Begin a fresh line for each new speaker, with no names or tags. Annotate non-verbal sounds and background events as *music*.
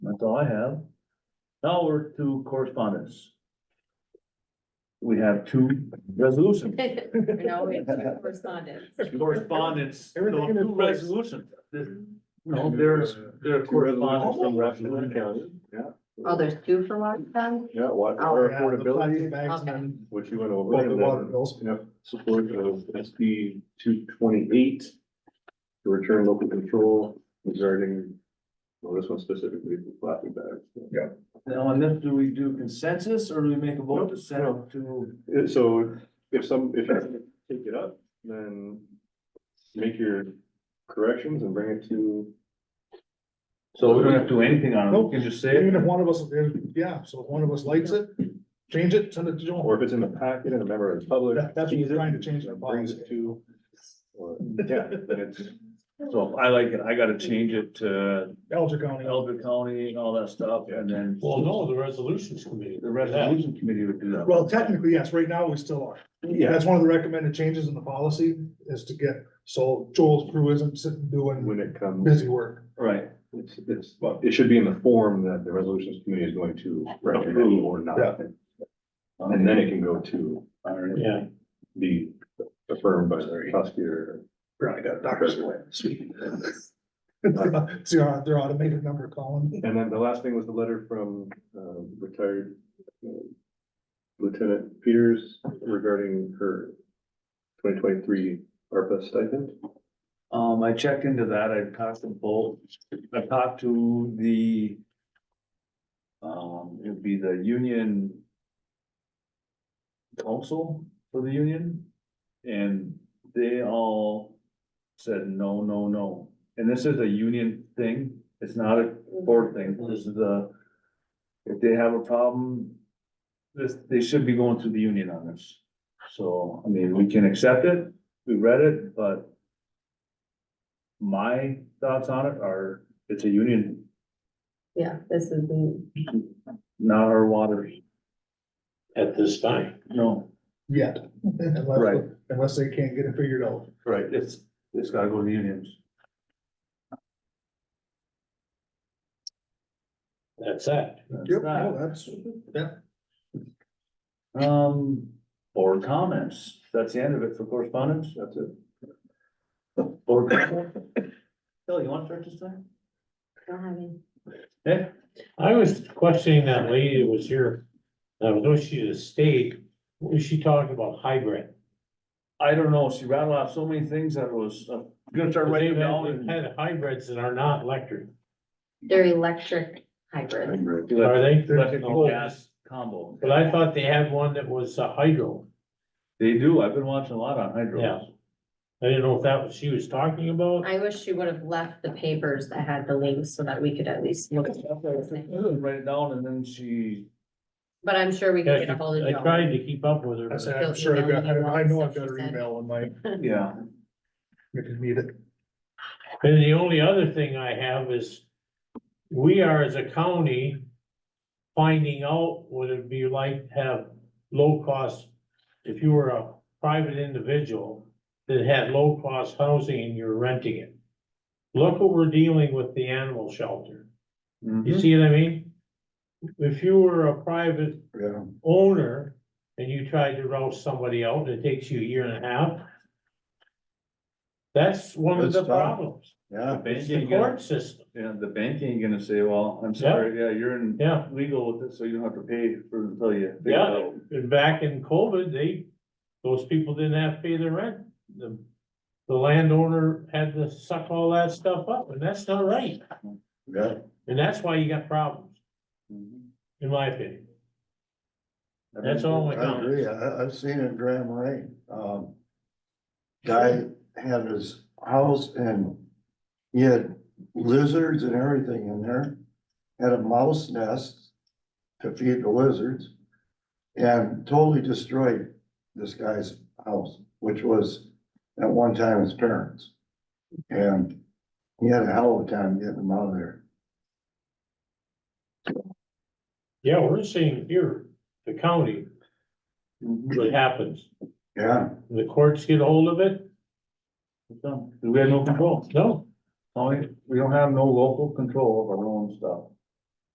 That's all I have. Now we're to correspondence. We have two resolutions.
No, we have two correspondents.
Correspondence,
Everything
no,
in
two
its place.
resolutions. No, there's,
uh,
there are correspondence from Rappahannock County.
Oh, there's two for Washington?
Yeah, what,
Oh,
our
Yeah, the plastic
affordability,
bags
Okay.
and
which you went
Well, the water
over.
bills.
Yeah, support of SB two twenty-eight to return local control regarding, well, this one specifically, the plastic bags.
Now, on this, do we do consensus or do we make a vote to send it to?
Uh, So if some, if you take it up, then make your corrections and bring it to.
So we don't have to do anything on it, we
Nope.
can just say
Even
it.
if one of us, yeah, so if one of us likes it, change it, send it to Joel.
Or if it's in the packet and a member of the public.
That- that's what we're
sees it,
trying to change in our
Brings it
policy.
to. or- Yeah,
*laughs*
then it's,
So I like it, I gotta change it to
Elder County.
Elder County and all that stuff and then.
Well, no, the resolutions committee.
The resolution committee would do that.
Well, technically, yes, right now we still are.
yeah,
That's one of the recommended changes in the policy is to get, so Joel's crew isn't sitting doing
when it comes,
busy work.
Right,
it's, it's, well, it should be in the form that the resolutions committee is going to recommend or not.
Yeah.
And then it can go to
all right.
Yeah,
be affirmed by the prosecutor.
Right, doctor's away. *laughs* See, our- their automated number calling.
And then the last thing was the letter from uh, retired uh, Lieutenant Peters regarding her twenty twenty-three ARPA stipend.
Um, I checked into that, I talked to both, I talked to the. Um, it would be the union. Council for the union, and they all said, no, no, no, and this is a union thing, it's not a board thing, this is a. If they have a problem, this, they should be going through the union on this, so, I mean, we can accept it, we read it, but my thoughts on it are, it's a union,
Yeah, this is the,
not our waters,
at this time.
no.
Yet, *laughs* unless,
Right.
unless they can't get it figured out.
Right. It's, it's gotta go to the unions.
That's that.
That's
Yep,
that.
no, that's,
Um, board comments, that's the end of it for correspondence,
That's it.
board. comments? Phil, you wanna start this time?
don't have any.
Yeah.
I was questioning that lady that was here, I was wishing she had stayed, was she talking about hybrid?
I don't know, she rattled off so many things that was, uh, I'm gonna start writing
They've
them down
had- they've
and.
had hybrids that are not electric,
They're electric hybrids.
are they?
Electric and
Oh,
gas combo,
But I thought they had one that was uh, hydro,
they do, I've been watching a lot on hydro.
Yeah. I didn't know if that was she was talking about.
I wish you would have left the papers that had the links so that we could at least look. at those things.
Write it down and then *laughs* she
But I'm sure we can get a hold of
I
Joel.
tried to keep up with her.
I
but-
said, I'm sure I've got, I know I've got her email on my,
Yeah.
if you need it.
Then the only other thing I have is, we are as a county finding out what it'd be like to have low cost, if you were a private individual that had low cost housing and you're renting it. Look what we're dealing with the animal shelter.
Mm-hmm.
You
Mm-hmm.
see what I mean? If you were a private
Yeah.
owner and you tried to rouse somebody out, it takes you a year and a half. That's one of
That's
the
tough.
problems.
Yeah.
It's the court system,
Yeah, the bank ain't gonna say, well, I'm sorry, yeah, you're in
yeah.
legal with it, so you don't have to pay for until you. figure it
Yeah,
out.
and back in COVID, they, those people didn't have to pay their rent. The, the landowner had to suck all that stuff up, and that's not right.
Yeah.
And that's why you got problems,
Mhm.
in my opinion. That's all my
I agree,
comments.
I, I've seen it in Grand Marais, um. Guy had his house and he had lizards and everything in there, had a mouse nest to feed the lizards. And totally destroyed this guy's house, which was at one time his parents. And he had a hell of a time getting them out of there.
Yeah, we're seeing here, the county,
Mhm.
what happens,
Yeah,
the courts get hold of it,
It's done. 'Cause We have no control,
no,
Only- we don't have no local control of our own stuff.